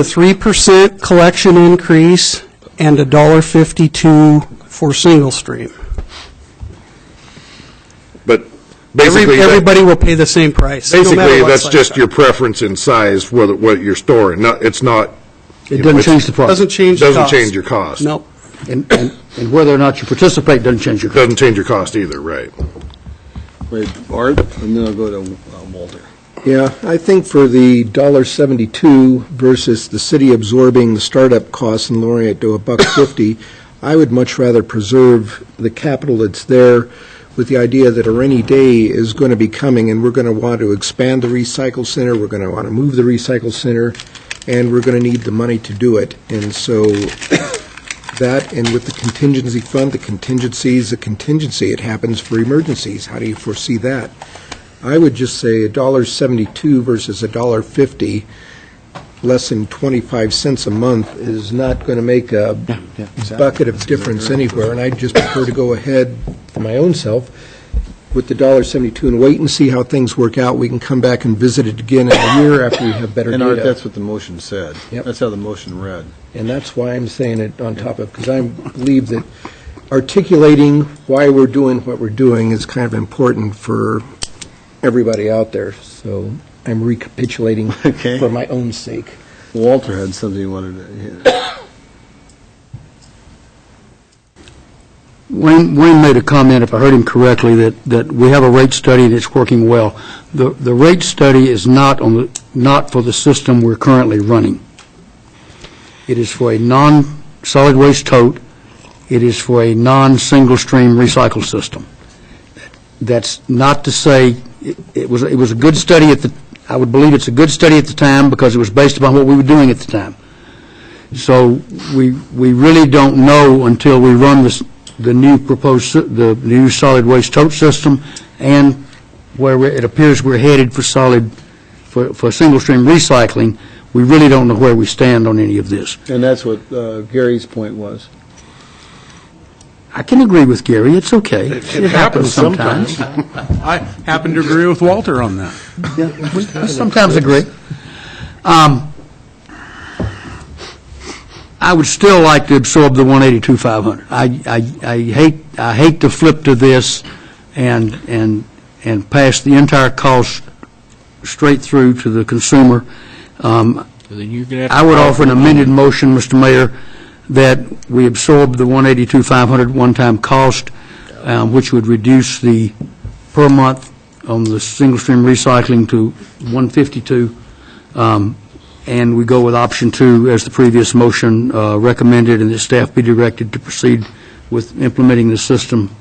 a 3% collection increase and a $1.52 for single stream. But Every- basically, that- Everybody will pay the same price. no matter basically, what that's size just car. your preference in size, whether, what you're storing. Not, it's not, It You know, doesn't it's- change the product. Doesn't change the Doesn't cost. change your cost. Nope. And, and and whether or not you participate doesn't change your cost. doesn't change your cost either, right? Wait, Art, and then I'll go to uh, Walter. Yeah, I think for the dollar seventy-two versus the city absorbing the startup costs and lowering it to a buck fifty, I would much rather preserve the capital that's there with the idea that a rainy day is going to be coming, and we're going to want to expand the recycle center, we're going to want to move the recycle center, and we're going to need the money to do it. And so that, and with the contingency fund, the contingency is a contingency. It happens for emergencies. How do you foresee that? I would just say a dollar seventy-two versus a dollar fifty, less than twenty-five cents a month is not going to make a bucket of difference anywhere, and I'd just prefer to go ahead for my own self with the dollar seventy-two and wait and see how things work out. We can come back and visit it again in a year after we have better And Art, data. that's what the motion said. Yep. That's how the motion read. And that's why I'm saying it on top of, because I believe that articulating why we're doing what we're doing is kind of important for everybody out there, so I'm recapitulating Okay. for my own sake. Walter had something he wanted to, yeah. Wayne, Wayne made a comment, if I heard him correctly, that, that we have a rate study and it's working well. The, the rate study is not on, the not for the system we're currently running. It is for a non-solid waste tote, it is for a non-single stream recycle system. That's not to say, it- it was, it was a good study at the, I would believe it's a good study at the time because it was based upon what we were doing at the time. So we, we really don't know until we run this, the new proposed, sy- the new solid waste tote system and where we're- it appears we're headed for solid, for, for single stream recycling. We really don't know where we stand on any of this. and that's what uh, Gary's point was. I can agree with Gary, it's okay. It happens sometimes. I happen to agree with Walter on that. Yeah, we we sometimes agree. Um, I would still like to absorb the 182,500. I, I, I hate, I hate to flip to this and, and, and pass the entire cost straight through to the consumer. Um, Then you're going to have to... I would offer an amended motion, Mr. Mayor, that we absorb the 182,500 one-time cost, um, which would reduce the per month on the single-stream recycling to 152, um, and we go with option two as the previous motion uh, recommended, and that staff be directed to proceed with implementing the system.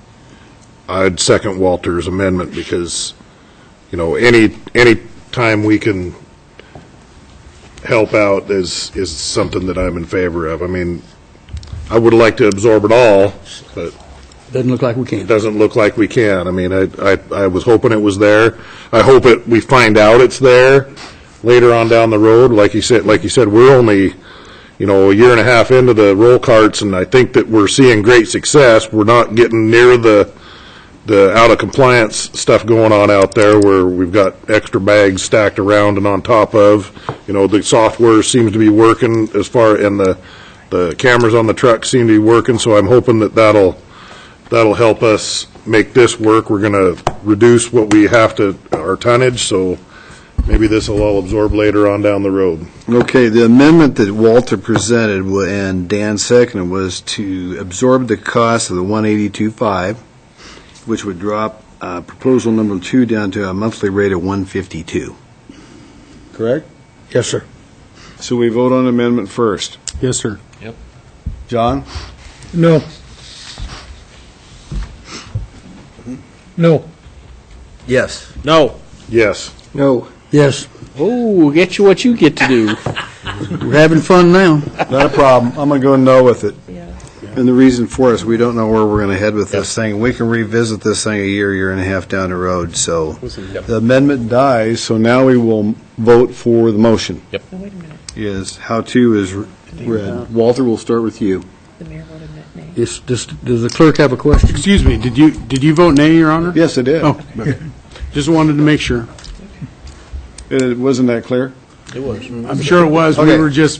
I'd second Walter's amendment because, you know, any, any time we can help out is, is something that I'm in favor of. I mean, I would like to absorb it all, but Doesn't look like we it can. doesn't look like we can. I mean, I, I, I was hoping it was there. I hope it, we find out it's there later on down the road. Like you said, like you said, we're only, you know, a year and a half into the roll carts, and I think that we're seeing great success. We're not getting near the, the out of compliance stuff going on out there where we've got extra bags stacked around and on top of. You know, the software seems to be working as far, and the, the cameras on the truck seem to be working, so I'm hoping that that'll, that'll help us make this work. We're going to reduce what we have to, our tonnage, so maybe this will all absorb later on down the road. Okay, the amendment that Walter presented wa- and Dan seconded was to absorb the cost of the 182.5, which would drop uh, proposal number two down to a monthly rate of 152. Correct? Yes, sir. So we vote on amendment first. Yes, sir. John? No. No. Yes. No. Yes. No. Yes. Oh, get you what you get to do. We're having fun now. Not a problem. I'm going to go no with it. And the reason for is we don't know where we're going to head with this thing. We can revisit this thing a year, year and a half down the road, so. The amendment dies, so now we will vote for the motion. Yep. No, Oh, wait a minute, Is, how to is read. Walter, we'll start with you. the mayor voted nay. Is- Does does the clerk have a question? Excuse me, did you, did you vote nay, Your Honor? Yes, I did. Oh, just wanted to make sure. It- Wasn't that clear? I'm sure it was. We Okay. were just